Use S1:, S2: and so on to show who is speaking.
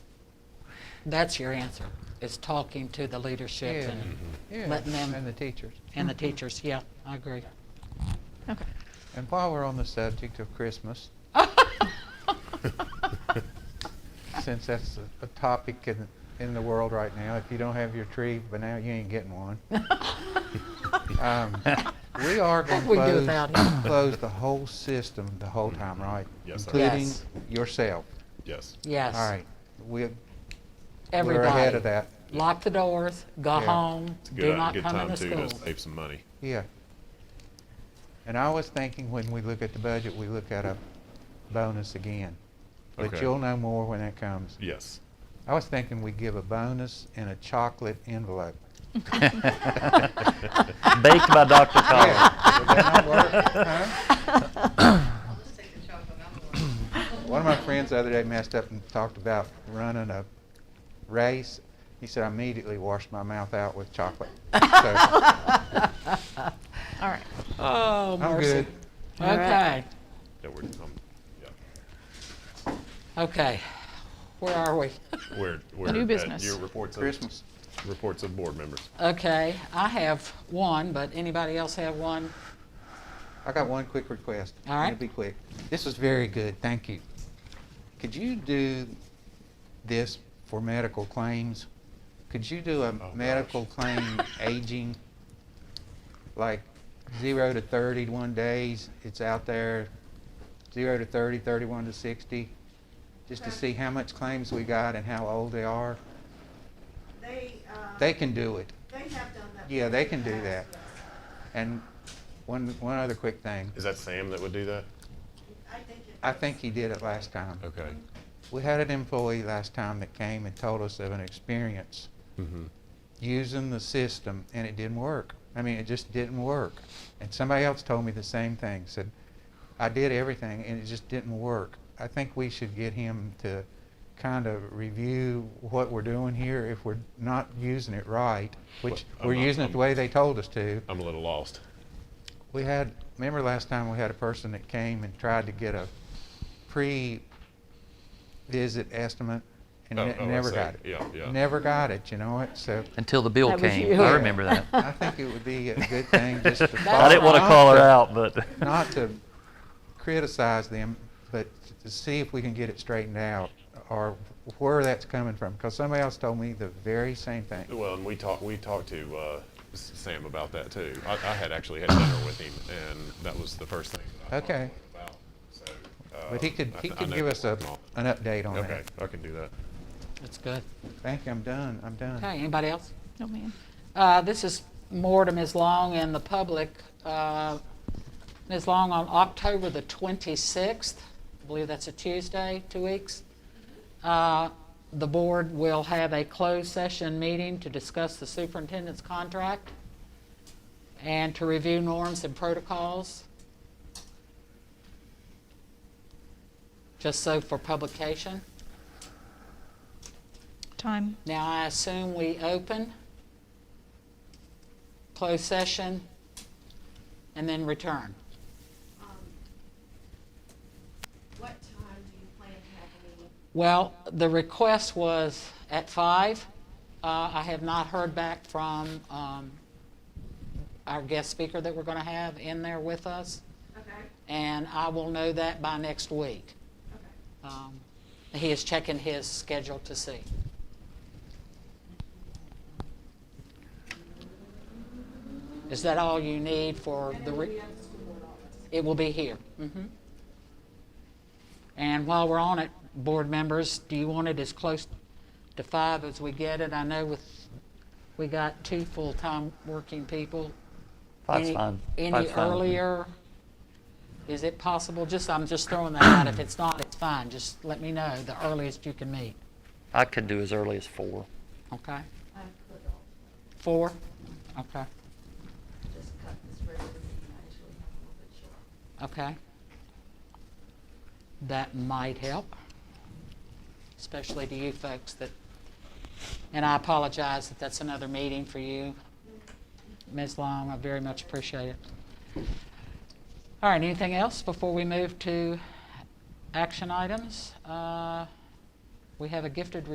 S1: That's your answer, is talking to the leadership
S2: Yeah, Mm-hmm.
S1: and,
S3: Mm-hmm.
S2: yeah,
S1: letting them-
S2: and the teachers.
S1: and the teachers. Yeah, I agree.
S4: Okay.
S2: And while we're on the subject of Christmas,
S1: Oh.
S2: since that's a, a topic in, in the world right now, if you don't have your tree, but now you ain't getting one. Um, we are going
S1: What
S2: to
S1: we do
S2: close,
S1: without it.
S2: close the whole system the whole time, right?
S3: Mm-hmm. Yes, sir.
S2: Including
S1: Yes.
S2: yourself.
S3: Yes.
S1: Yes.
S2: All right. We,
S1: Everybody.
S2: We're ahead of that.
S1: Lock the doors, go
S2: Yeah.
S1: home,
S3: It's a good, uh,
S1: do not
S3: good
S1: come in
S3: time
S1: the
S3: too to
S1: school.
S3: save some money.
S2: Yeah. And I was thinking when we look at the budget, we look at a bonus again. But
S3: Okay.
S2: you'll know more when that comes.
S3: Yes.
S2: I was thinking we give a bonus in a chocolate envelope.
S5: Baked by Dr. Collins.
S2: Yeah, would that not work? Huh? One of my friends the other day messed up and talked about running a race. He said, I immediately washed my mouth out with chocolate. So,
S4: All right.
S1: Oh,
S2: I'm
S1: mercy.
S2: good.
S4: All
S1: Okay,
S4: right.
S3: Yeah, we're, um, yeah.
S1: okay. Where are we?
S3: We're, we're
S4: New
S3: at
S4: business.
S3: Your reports of
S2: Christmas.
S3: reports of board members.
S1: Okay, I have one, but anybody else have one?
S2: I got one quick request.
S1: All right.
S2: It'll be quick. This is very good, thank you. Could you do this for medical claims? Could you do a
S3: gosh.
S2: medical claim aging? Like zero to thirty-one days, it's out there, zero to 30, 31 to sixty, just to see how much claims we got and how old they are?
S6: They, um,
S2: They can do it.
S6: they have done that.
S2: Yeah, they can do
S6: in the
S2: that.
S6: past,
S2: And one, one other quick thing,
S3: Is that Sam that would do that?
S6: yes. I think it
S2: I
S6: does.
S2: think he did it last time.
S3: Okay.
S2: We had an employee last time that came and told us of an experience
S3: Mm-hmm.
S2: using the system and it didn't work. I mean, it just didn't work. And somebody else told me the same thing, said, I did everything and it just didn't work. I think we should get him to kind of review what we're doing here if we're not using it right, which
S3: Well, I'm
S2: we're
S3: not-
S2: using it the
S3: I'm-
S2: way they told us to.
S3: I'm a little lost.
S2: We had, remember last time we had a person that came and tried to get a pre-visit estimate and
S3: Oh,
S2: ne-
S3: oh, I
S2: never
S3: see.
S2: got it.
S3: Yeah, yeah.
S2: Never got it, you know it, so
S5: Until the bill
S4: That was
S5: came.
S4: you.
S5: I remember that.
S2: I think it would be a good thing just to.
S5: I didn't want to
S2: not
S5: call her out, but.
S2: Not to criticize them, but to see if we can get it straightened out or where that's coming from, because somebody else told me the very same thing.
S3: Well, and we talked we talked to uh, S- Sam about that too. I, I had actually had dinner with him, and that was the first thing. That I talked
S2: Okay.
S3: to him about. So,
S2: But he
S3: um,
S2: could, he
S3: I th- I
S2: could
S3: know
S2: give
S3: we're
S2: us a,
S3: working on it.
S2: an update on
S3: Okay,
S2: that.
S3: I can do that.
S1: That's good.
S2: Thank you, I'm done, I'm done.
S1: Okay, anybody else?
S4: No, man.
S1: Uh, This is more to Ms. Long and the public. Uh, Ms. Long, on October the 26th, I believe that's a Tuesday, two weeks, uh, the board will have a closed session meeting to discuss the superintendent's contract and to review norms and protocols, just so for publication.
S4: Time.
S1: Now, I assume we open, close session, and then return.
S6: um, What time do you plan to have a meeting?
S1: Well, the request was at five. Uh, I have not heard back from um, our guest speaker that we're going to have in there with us,
S6: Okay,
S1: and I will know that by next week.
S6: okay.
S1: Um, He is checking his schedule to see. Is that all you need for the? re- It will be here. Mhm. And while we're on it, board members, do you want it as close to five as we get it? I know with, we got two full-time working people.
S5: Five's
S1: Any-
S5: fine.
S1: Any
S5: Five's fine with me.
S1: earlier? Is it possible, just, I'm just throwing that out, if it's not, it's fine, just let me know, the earliest you can meet,
S5: I could do as early as four.
S1: okay?
S6: I could also
S1: Four? Okay,
S6: just cut this regular meeting, I actually have a little bit short.
S1: okay. That might help, especially to you folks that, and I apologize that that's another meeting for you. Ms. Long, I very much appreciate it. All right, anything else before we move to action items? Uh, We have a gifted